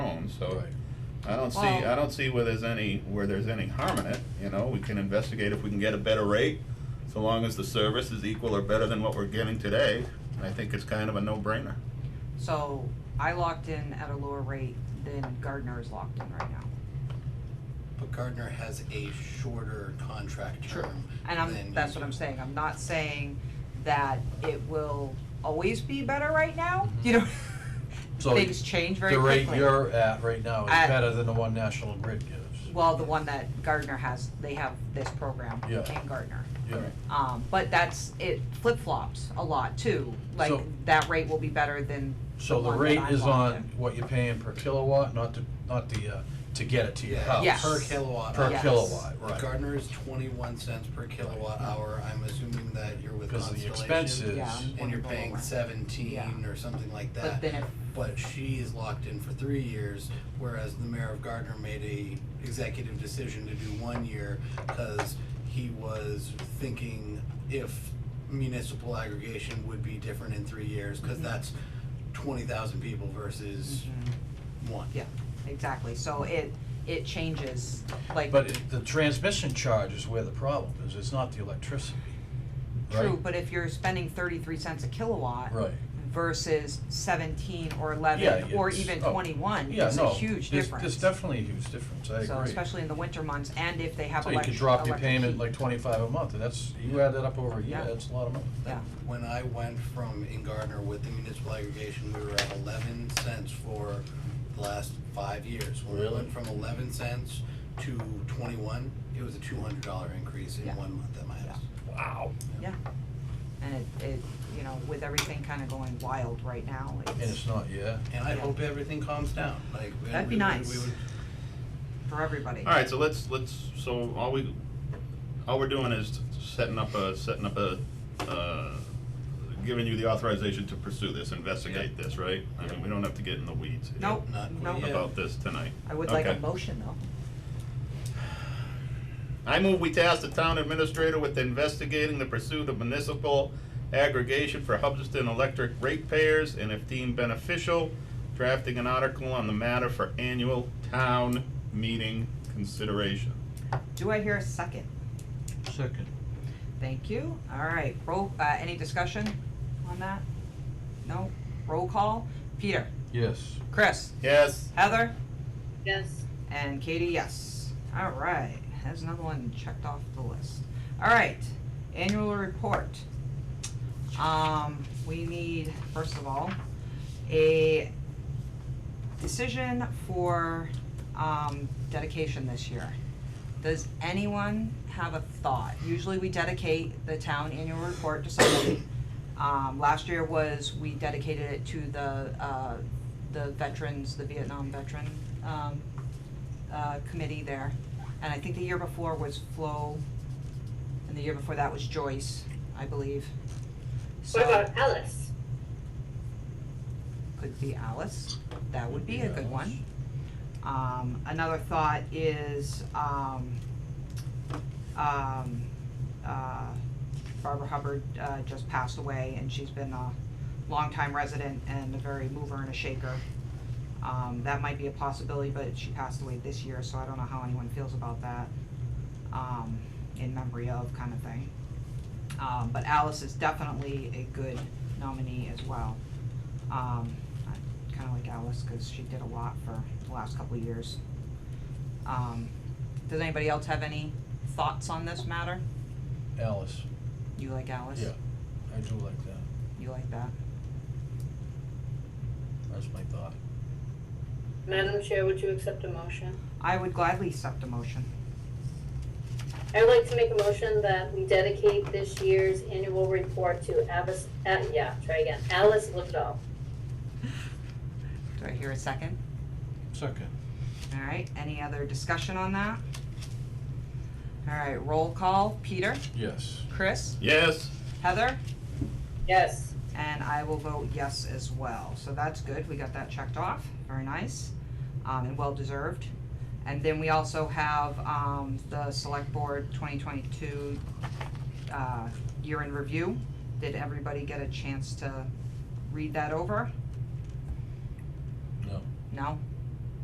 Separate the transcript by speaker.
Speaker 1: so.
Speaker 2: Right.
Speaker 1: I don't see,
Speaker 3: Well-
Speaker 1: I don't see where there's any, where there's any harm in it, you know, we can investigate if we can get a better rate, so long as the service is equal or better than what we're getting today, I think it's kind of a no-brainer.
Speaker 3: So I locked in at a lower rate than Gardner is locked in right now.
Speaker 2: But Gardner has a shorter contract
Speaker 3: True.
Speaker 2: term
Speaker 3: And I'm,
Speaker 2: than
Speaker 3: that's
Speaker 2: you
Speaker 3: what
Speaker 2: do.
Speaker 3: I'm saying, I'm not saying that it will always be better right now, you know?
Speaker 4: So
Speaker 3: Things change very
Speaker 4: The rate
Speaker 3: quickly.
Speaker 4: you're at right now is
Speaker 3: At-
Speaker 4: better than the one National Grid gives.
Speaker 3: Well, the one that Gardner has, they have this program
Speaker 4: Yeah.
Speaker 3: in Gardner.
Speaker 4: Yeah.
Speaker 3: Um, but that's, it flip flops a lot too, like
Speaker 4: So-
Speaker 3: that rate will be better than the
Speaker 4: So the
Speaker 3: one
Speaker 4: rate
Speaker 3: that I'm
Speaker 4: is
Speaker 3: locked
Speaker 4: on
Speaker 3: in.
Speaker 4: what you're paying per kilowatt, not to, not the, uh, to get it to your house.
Speaker 2: Yeah,
Speaker 3: Yes.
Speaker 2: per kilowatt.
Speaker 4: Per
Speaker 2: hour.
Speaker 3: Yes.
Speaker 4: kilowatt, right.
Speaker 2: Gardner is twenty-one cents per kilowatt hour, I'm assuming that you're with
Speaker 4: Because of the
Speaker 2: Constellation.
Speaker 4: expenses.
Speaker 3: Yeah, I'm
Speaker 2: And
Speaker 3: one
Speaker 2: you're
Speaker 3: below
Speaker 2: paying
Speaker 3: that.
Speaker 2: seventeen
Speaker 3: Yeah.
Speaker 2: or something like that.
Speaker 3: But then if
Speaker 2: But she is locked in for three years, whereas the mayor of Gardner made a executive decision to do one year because he was thinking if municipal aggregation would be different in three years, because
Speaker 3: Mhm.
Speaker 2: that's twenty thousand people versus one.
Speaker 3: Yeah, exactly, so it, it changes, like,
Speaker 4: But it- the transmission charge is where the problem is, it's not the electricity, right?
Speaker 3: true, but if you're spending thirty-three cents a kilowatt
Speaker 4: Right,
Speaker 3: versus seventeen or
Speaker 4: Yeah,
Speaker 3: eleven, or
Speaker 4: it's-
Speaker 3: even
Speaker 4: oh,
Speaker 3: twenty-one,
Speaker 4: yeah,
Speaker 3: it's a
Speaker 4: no,
Speaker 3: huge
Speaker 4: there's,
Speaker 3: difference.
Speaker 4: there's definitely a huge difference, I agree.
Speaker 3: So especially in the winter months, and if they have
Speaker 4: So you
Speaker 3: electric,
Speaker 4: could
Speaker 3: electric
Speaker 4: drop your payment
Speaker 3: heat.
Speaker 4: like twenty-five a month, and that's, you add that up over a year,
Speaker 3: Yeah.
Speaker 4: that's a lot of money.
Speaker 3: Yeah,
Speaker 2: When I went from in Gardner with the municipal aggregation, we were at eleven cents for the last five years. When I
Speaker 4: Really?
Speaker 2: went from eleven cents to twenty-one, it was a two hundred dollar increase in
Speaker 3: Yeah.
Speaker 2: one month at my house.
Speaker 4: Wow.
Speaker 3: yeah, and it, it, you know, with everything kinda going wild right now,
Speaker 4: And it's
Speaker 3: it's
Speaker 4: not, yeah,
Speaker 2: And I
Speaker 3: Yeah.
Speaker 2: hope everything calms down, like. and
Speaker 3: That'd be
Speaker 2: we would-
Speaker 3: nice.
Speaker 2: We would,
Speaker 3: for everybody.
Speaker 1: Alright, so let's, let's, so all we, all we're doing is setting up a, setting up a, uh, giving you the authorization to pursue this, investigate this, right? I mean, we don't have to get in the weeds here
Speaker 3: Nope,
Speaker 2: Not-
Speaker 3: nope,
Speaker 2: yeah.
Speaker 1: about this tonight.
Speaker 3: I would like a
Speaker 1: Okay.
Speaker 3: motion though.
Speaker 1: I move we task the town administrator with investigating the pursuit of municipal aggregation for Hubbardston electric ratepayers, and if deemed beneficial, drafting an article on the matter for annual town meeting consideration.
Speaker 3: Do I hear a second?
Speaker 4: second.
Speaker 3: Thank you. All right, roll, uh, any discussion on that? No? Roll call? Peter?
Speaker 4: Yes.
Speaker 3: Chris?
Speaker 1: Yes,
Speaker 3: Heather?
Speaker 5: Yes,
Speaker 3: And Katie, yes. All right, that's another one checked off the list. All right, annual report. Um, we need, first of all, a decision for, um, dedication this year. Does anyone have a thought? Usually we dedicate the town annual report to somebody. Um, last year was, we dedicated it to the, uh, the veterans, the Vietnam veteran, um, uh, committee there. And I think the year before was Flo, and the year before that was Joyce, I believe.
Speaker 5: what
Speaker 3: So,
Speaker 5: about Alice?
Speaker 3: could be Alice, that would be a good
Speaker 4: Alice.
Speaker 3: one. Um, another thought is, um, um, uh, Barbara Hubbard, uh, just passed away, and she's been a longtime resident and a very mover and a shaker. Um, that might be a possibility, but she passed away this year, so I don't know how anyone feels about that, um, in memory of kind of thing. Um, but Alice is definitely a good nominee as well. Um, I kinda like Alice, cause she did a lot for the last couple of years. Um, does anybody else have any thoughts on this matter?
Speaker 4: Alice,
Speaker 3: You like Alice?
Speaker 4: yeah, I do like that,
Speaker 3: You like that?
Speaker 4: that's my thought.
Speaker 5: Madam Chair, would you accept a motion?
Speaker 3: I would gladly accept a motion.
Speaker 5: I would like to make a motion that we dedicate this year's annual report to Alice, uh, yeah, try again, Alice Livedall.
Speaker 3: Do I hear a second?
Speaker 4: Second.
Speaker 3: Alright, any other discussion on that? Alright, roll call, Peter,
Speaker 4: Yes.
Speaker 3: Chris,
Speaker 1: yes,
Speaker 3: Heather,
Speaker 5: Yes,
Speaker 3: And I will vote yes as well. So that's good. We got that checked off. Very nice. Um, and well deserved. And then we also have, um, the select board twenty twenty-two, uh, year in review. Did everybody get a chance to read that over?
Speaker 4: No.
Speaker 3: No?